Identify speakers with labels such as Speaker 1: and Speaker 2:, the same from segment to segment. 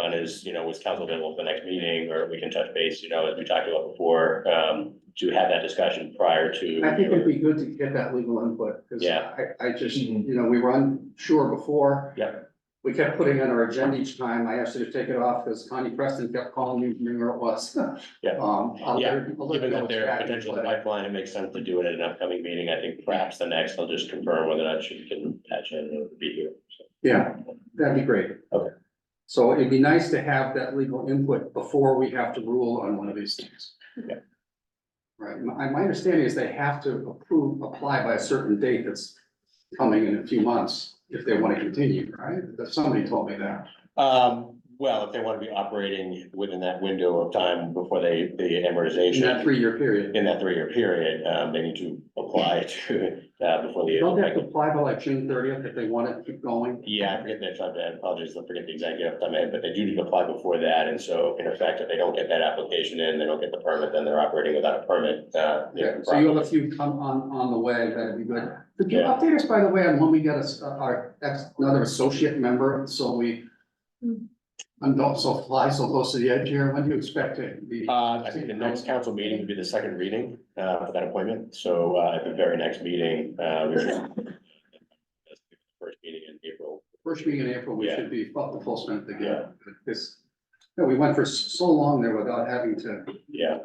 Speaker 1: done is, you know, was council available for the next meeting, or we can touch base, you know, as we talked about before, um, to have that discussion prior to.
Speaker 2: I think it'd be good to get that legal input, because
Speaker 1: Yeah.
Speaker 2: I, I just, you know, we were unsure before.
Speaker 1: Yeah.
Speaker 2: We kept putting on our agenda each time. I asked her to take it off because Connie Preston kept calling me, remembering where it was.
Speaker 1: Yeah.
Speaker 2: Um, I'll let her- I'll let her
Speaker 1: Given
Speaker 2: know
Speaker 1: that
Speaker 2: it's
Speaker 1: there are
Speaker 2: back,
Speaker 1: potential
Speaker 2: but-
Speaker 1: pipeline, it makes sense to do it at an upcoming meeting. I think perhaps the next, I'll just confirm whether or not she can patch in or be here. So,
Speaker 2: Yeah, that'd be great.
Speaker 1: Okay.
Speaker 2: So it'd be nice to have that legal input before we have to rule on one of these things.
Speaker 1: Yeah.
Speaker 2: Right, my, my understanding is they have to approve, apply by a certain date that's coming in a few months if they want to continue, right? Somebody told me that.
Speaker 1: Um, well, if they want to be operating within that window of time before they, the
Speaker 2: In that
Speaker 1: amortization
Speaker 2: three-year period.
Speaker 1: in that three-year period, um, they need to apply to, uh, before
Speaker 2: Don't they have to
Speaker 1: the.
Speaker 2: apply by like June thirtieth if they want it to keep going?
Speaker 1: Yeah, I forget that, I apologize, I forget the exact date off the top of my head, but they do need to apply before that, and so in effect, if they don't get that application in, they don't get the permit, then they're operating without a permit, uh.
Speaker 2: Yeah, so you have a few come on, on the way, that'd be good. Could you
Speaker 1: Yeah.
Speaker 2: update us, by the way, on when we get us, our, ex another associate member, so we and don't so fly so close to the edge here, when do you expect it to be?
Speaker 1: Uh, I think the next council meeting would be the second reading, uh, for that appointment, so, uh, at the very next meeting, uh, we should. that's the First meeting in April,
Speaker 2: First meeting in April, we
Speaker 1: Yeah.
Speaker 2: should be up the full strength
Speaker 1: Yeah.
Speaker 2: again. This, no, we went for s- so long there without having to,
Speaker 1: yeah,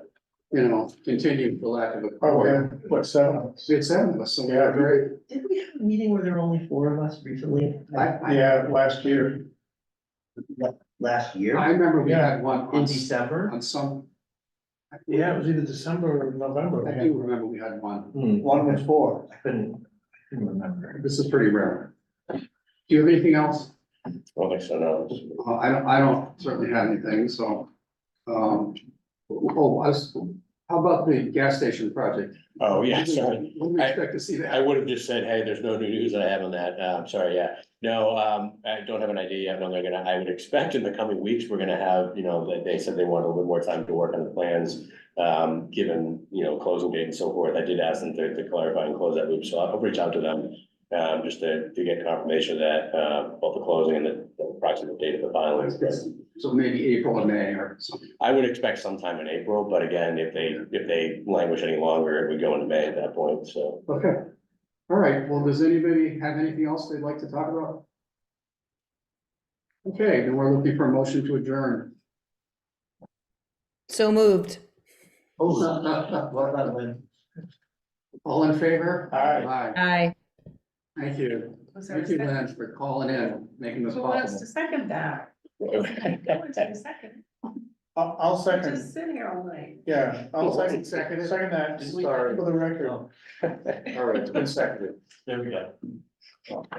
Speaker 2: you know, continue for lack of a.
Speaker 3: Oh, yeah, what, seven?
Speaker 2: We had seven of us, so. we
Speaker 3: Yeah,
Speaker 2: were
Speaker 3: great.
Speaker 4: Did we have a meeting where there were only four of us recently?
Speaker 2: I, I,
Speaker 3: Yeah, last year.
Speaker 4: Last
Speaker 2: I
Speaker 4: year?
Speaker 2: remember we had one
Speaker 4: In
Speaker 2: on,
Speaker 4: December?
Speaker 2: on some. I-
Speaker 3: Yeah, it was either December or November.
Speaker 2: I do remember we had one.
Speaker 3: One was four.
Speaker 4: I couldn't, I couldn't remember.
Speaker 2: This is pretty rare. Do you have anything else?
Speaker 1: well, like, so now,
Speaker 2: Uh, I don't, I don't certainly have anything, so. Um, oh, I was, how about the gas station project?
Speaker 1: oh, yeah, sorry.
Speaker 2: When do we expect to see
Speaker 1: I
Speaker 2: that?
Speaker 1: would have just said, hey, there's no new news that I have on that. Uh, I'm sorry, yeah. No, um, I don't have an idea yet. No, they're gonna, I would expect in the coming weeks, we're gonna have, you know, they, they said they want a little bit more time to work on the plans. Um, given, you know, closing date and so forth. I did ask them to, to clarify and close that loop, so I'll reach out to them. Um, just to, to get confirmation that, uh, both the closing and the the approximate date of the filings. But
Speaker 2: So maybe April or May or something.
Speaker 1: I would expect sometime in April, but again, if they, if they languish any longer, it would go into May at that point, so.
Speaker 2: Okay. All right, well, does anybody have anything else they'd like to talk about? Okay, then we're looking for a motion to adjourn.
Speaker 5: So moved.
Speaker 1: Oh.
Speaker 4: What about when?
Speaker 2: All in favor?
Speaker 3: Aye.
Speaker 2: Aye.
Speaker 5: Aye.
Speaker 2: Thank you.
Speaker 6: Was there a
Speaker 2: Thank you,
Speaker 6: second?
Speaker 2: Lynn, for calling in, making this
Speaker 6: Who
Speaker 2: possible.
Speaker 6: wants to second that? Who wants to second?
Speaker 3: I'll, I'll
Speaker 6: I'm
Speaker 3: second,
Speaker 6: Just sitting here all night.
Speaker 3: yeah, I'll second,
Speaker 2: Second it.
Speaker 3: second that,
Speaker 2: Sorry.
Speaker 3: for the record.
Speaker 2: All right, it's been seconded.
Speaker 1: There we go.